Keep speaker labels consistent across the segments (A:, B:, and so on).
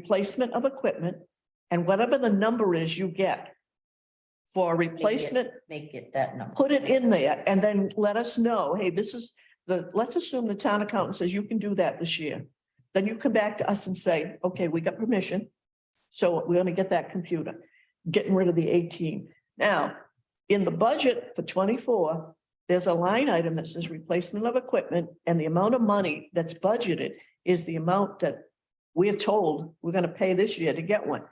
A: replacement of equipment, and whatever the number is you get for replacement,
B: Make it that number.
A: put it in there and then let us know, hey, this is the, let's assume the town accountant says you can do that this year. Then you come back to us and say, okay, we got permission. So we're gonna get that computer, getting rid of the eighteen. Now, in the budget for twenty-four, there's a line item that says replacement of equipment and the amount of money that's budgeted is the amount that we're told we're gonna pay this year to get one.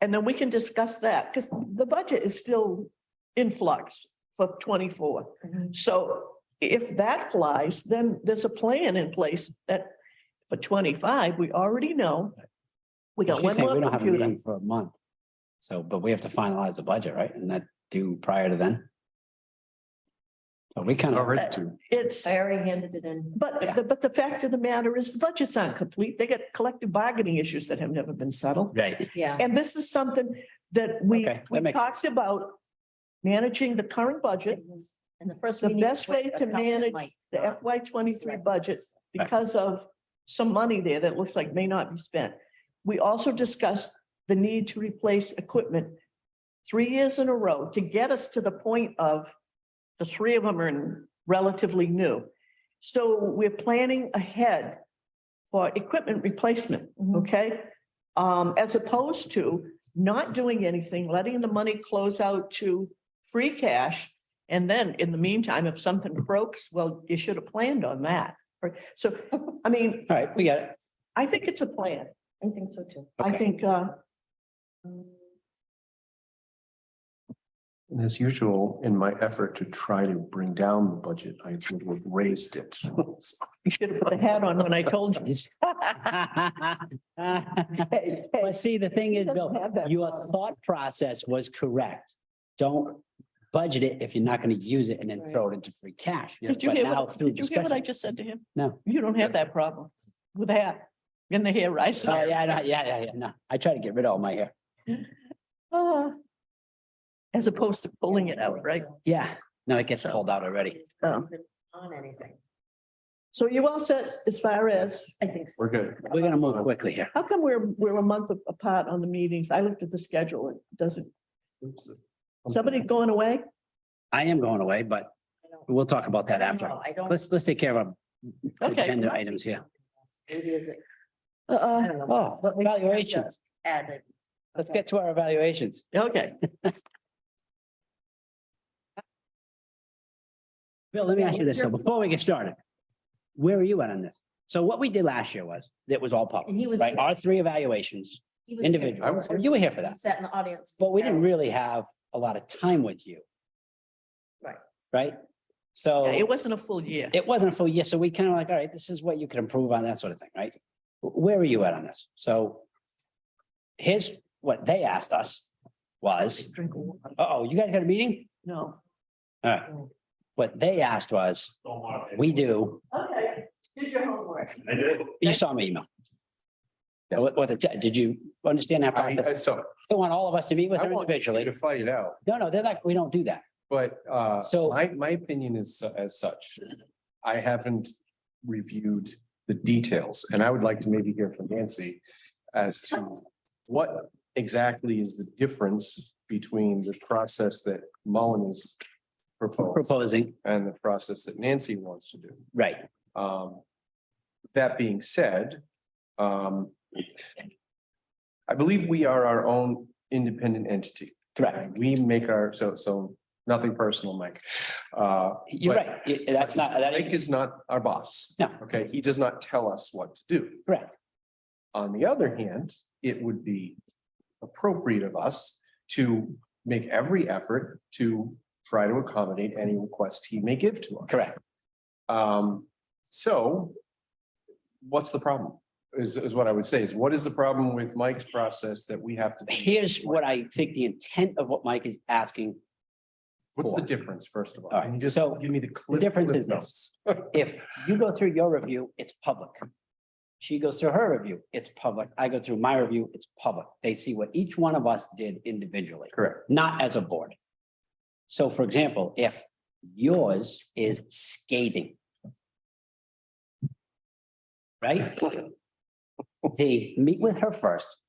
A: And then we can discuss that, because the budget is still in flux for twenty-four.
B: Mhm.
A: So if that flies, then there's a plan in place that for twenty-five, we already know. We got
C: She's
A: one
C: saying
A: more
C: We don't have a
A: computer.
C: meeting for a month. So, but we have to finalize the budget, right? And that due prior to then? So we kind of.
A: Alright. It's,
B: I already handed it in.
A: but,
C: Yeah.
A: the- but the fact of the matter is the budgets aren't complete. They got collective bargaining issues that have never been settled.
C: Right,
B: Yeah.
A: And this is something that we,
C: Okay, that
A: we
C: makes
A: talked about managing the current budget,
B: And the first.
A: the
B: meeting
A: best
B: with
A: way to
B: accountant
A: manage
B: Mike.
A: the FY twenty-three
B: Right.
A: budget because of some money there that looks like may not be spent. We also discussed the need to replace equipment three years in a row to get us to the point of the three of them are relatively new. So we're planning ahead for equipment replacement,
C: Mm.
B: Mhm.
A: okay? Um, as opposed to not doing anything, letting the money close out to free cash. And then in the meantime, if something croaks, well, you should have planned on that. Or- So, I mean,
C: all right, we got it.
A: I think it's a plan.
B: I think so too.
A: I
C: Okay.
A: think, uh,
D: And as usual, in my effort to try to bring down the budget, I would have raised it.
A: you should have put a hat on when I told you.
C: But see, the thing is, Bill, your thought process was correct. Don't budget it if you're not going to use it and then throw it into free cash.
A: Did you
C: But
A: hear
C: now
A: what,
C: through
A: did you hear what I
C: discussion.
A: just said to him?
C: No.
A: You don't have that problem with that. In the hair rising.
C: Oh, yeah, no, yeah, yeah, yeah, no. I try to get rid of all my hair.
A: Ah. As opposed to pulling it out, right?
C: Yeah, no, it gets
A: So-
C: cold out already.
A: Um,
B: On anything,
A: So you all set as far as,
B: I think so.
D: We're good.
C: We're gonna move quickly here.
A: how come we're, we're a month apart on the meetings? I looked at the schedule. It doesn't, somebody going away?
C: I am going away, but
B: I don't-
C: we'll talk about that
B: I don't
C: after.
B: know. I don't.
C: Let's, let's take care of our
A: Okay.
C: agenda
B: must be
C: items here.
B: something. Maybe is it
A: Uh,
B: I don't know,
C: Oh, evaluations.
B: added.
C: Let's get to our evaluations.
A: okay.
C: Bill, let me ask you this, though, before we get started. Where are you at on this? So what we did last year was, that was all
B: And
C: public,
B: he was.
C: right?
B: here.
C: Our three evaluations,
B: He was here.
D: I
C: individual.
D: was here.
C: You were here for
B: He
C: that,
B: Sat in the audience.
C: but we didn't really have a lot of time with you.
B: Right.
C: Right?
A: Yeah,
C: So
A: It wasn't a full year.
C: it wasn't a full year, so we kind of like, all right, this is what you can improve on, that sort of thing, right? Where are you at on this? So here's what they asked us was,
A: Drink of water.
C: oh, you guys got a meeting?
A: No.
C: All right. What they asked was, we do,
A: Okay, did your homework.
C: you saw my email. Now, What, what, the- did you understand that
D: I,
C: process?
D: I- so
C: They want all of us to meet with
D: I
C: them
D: want you
C: individually.
D: to fight it out,
C: No, no, they're like, we don't do that.
D: but uh,
C: So-
D: my, my opinion is as such. I haven't reviewed the details and I would like to maybe hear from Nancy as to what exactly is the difference between the process that Mullen is proposed
C: Proposing,
D: and the process that Nancy wants to do.
C: right,
D: Um, that being said, um, I believe we are our own independent entity.
C: correct.
D: We make our, so, so nothing personal, Mike. Uh,
C: You're
D: But-
C: right. Y- That's not, that
D: Mike
C: is
D: is not our boss.
C: No.
D: Okay, he does not tell us what to do.
C: correct.
D: On the other hand, it would be appropriate of us to make every effort to try to accommodate any request he may give to us.
C: Correct.
D: Um, so what's the problem? Is, is what I would say is what is the problem with Mike's process that we have to?
C: Here's what I think the intent of what Mike is asking
D: What's the
C: for.
D: difference, first of all?
C: All right,
D: Can you just
C: so
D: Give me the.
C: The
D: cliff-
C: difference
D: cliff
C: is
D: notes?
C: this. If you go through your review, it's public. She goes through her review, it's public. I go through my review, it's public. They see what each one of us did individually,
D: Correct.
C: not as a board. So for example, if yours is scathing. Right? the, meet with her first,